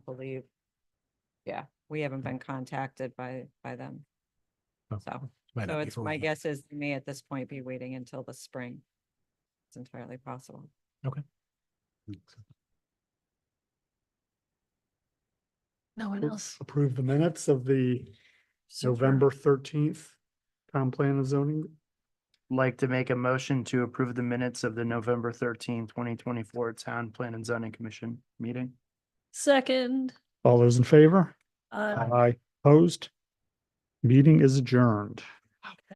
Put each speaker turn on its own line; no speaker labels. believe. Yeah, we haven't been contacted by, by them.
Oh,
So,
Might
so
not be
it's,
for
my
one.
guess is they may at this point be waiting until the spring. It's entirely possible.
Hmm,
No one
Oop,
else.
Approve the minutes of the
So far.
November thirteenth town plan and zoning.
Like to make a motion to approve the minutes of the November twenty twenty-four Town Plan and Zoning Commission meeting.
Second,
All those in favor?
uh,
Aye. Opposed? Meeting is adjourned.